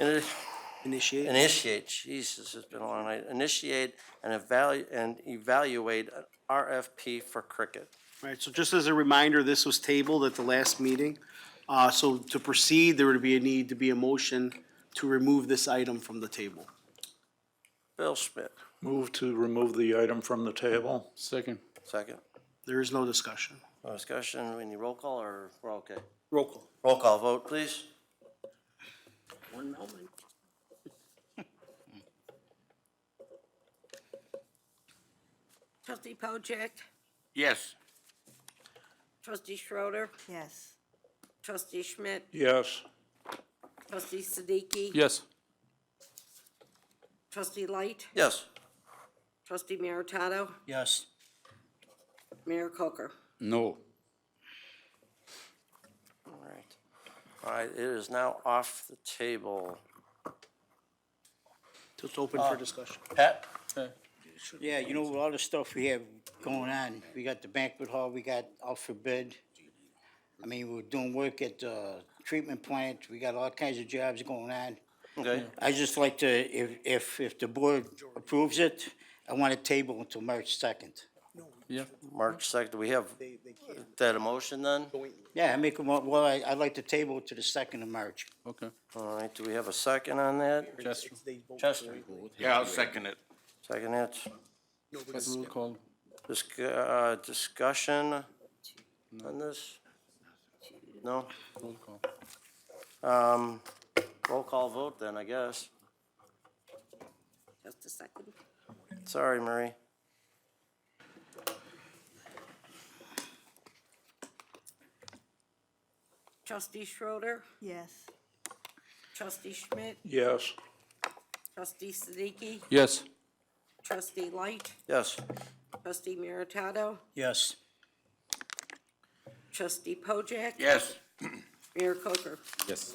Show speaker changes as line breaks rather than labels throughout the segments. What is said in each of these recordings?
Ini-
Initiate.
Initiate, Jesus, it's been a long night. Initiate and evaluate, and evaluate an RFP for cricket.
All right, so just as a reminder, this was tabled at the last meeting. Uh, So to proceed, there would be a need to be a motion to remove this item from the table.
Bill Schmidt,
Move to remove the item from the table.
Second.
second.
There is no discussion.
No discussion, we need roll call or we're okay?
Roll call.
Roll call vote, please.
Trustee Pojek,
Yes.
trustee Schroeder,
yes,
trustee Schmidt,
Yes.
trustee Siddiqui.
Yes.
Trustee Light,
Yes,
trustee Meritato,
yes,
Mayor Coker.
No.
all right. All right, it is now off the table.
It's open for discussion.
Pat?
yeah, you know, with all the stuff we have going on, we got the banquet hall, we got out for bid. I mean, we're doing work at the treatment plant, we got all kinds of jobs going on.
Okay,
I just like to, if, if, if the board approves it, I want a table until March second.
Yeah.
March second, we have that a motion then?
Yeah, I make a, mo- well, I, I'd like to table it to the second of March.
Okay.
All right, do we have a second on that?
Chester.
Chester,
Yeah, I'll second it.
second it.
Roll call.
Disc- uh, discussion on this? No?
Roll call.
Um, roll call vote then, I guess.
Just a second.
Sorry, Marie.
Trustee Schroeder,
yes.
trustee Schmidt,
Yes.
trustee Siddiqui,
Yes.
trustee Light,
Yes,
trustee Meritato,
Yes,
trustee Pojek,
Yes.
Mayor Coker.
Yes.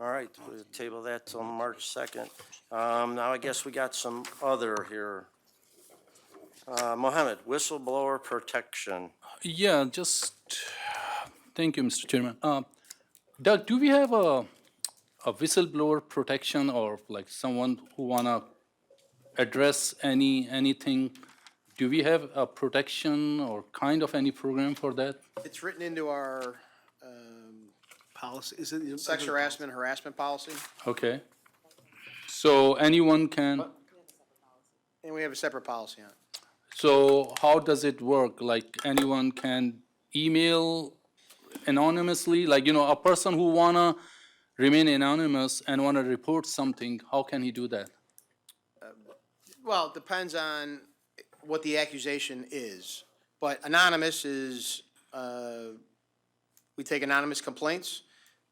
all right, we'll table that till March second. Um, now I guess we got some other here. Uh, Mohammed, whistleblower protection.
Yeah, just, thank you, Mr. Chairman. Uh, Doug, do we have a, a whistleblower protection or like someone who wanna address any, anything? Do we have a protection or kind of any program for that?
It's written into our um,
Policy, is it?
sex harassment, harassment policy,
Okay. So anyone can,
and we have a separate policy on it.
so how does it work? Like anyone can email anonymously? Like, you know, a person who wanna remain anonymous and wanna report something, how can he do that?
Well, it depends on what the accusation is, but anonymous is, uh, we take anonymous complaints.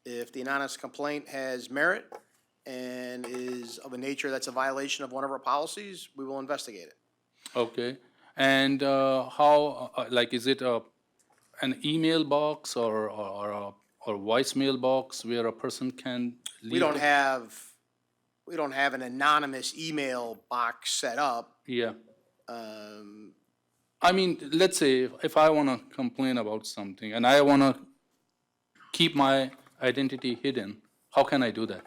If the anonymous complaint has merit and is of a nature that's a violation of one of our policies, we will investigate it.
Okay, and uh, how, uh, uh, like, is it a, an email box or, or, or a or voicemail box where a person can leave?
We don't
the-
have, we don't have an anonymous email box set up.
Yeah,
Um,
I mean, let's say if- if I wanna complain about something and I wanna keep my identity hidden, how can I do that?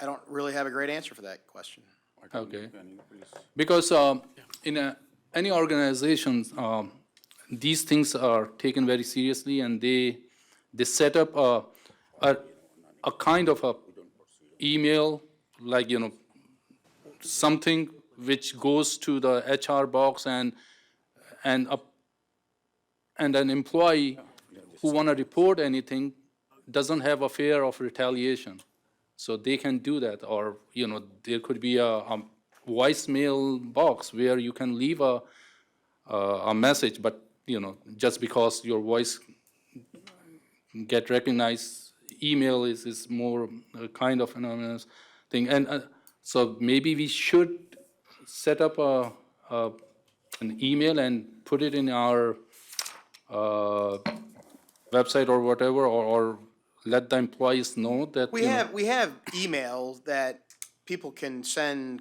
I don't really have a great answer for that question.
Okay. Because um, in a- any organizations, um, these things are taken very seriously and they, they set up a, a, a kind of a email, like, you know, something which goes to the HR box and, and a, and an employee who want to report anything doesn't have a fear of retaliation. So they can do that, or, you know, there could be a, a voicemail box where you can leave a, a, a message, but, you know, just because your voice get recognized, email is, is more a kind of anonymous thing. And uh, so maybe we should set up a, a, an email and put it in our, uh, website or whatever, or, or let the employees know that,
We
you know-
have, we have email that people can send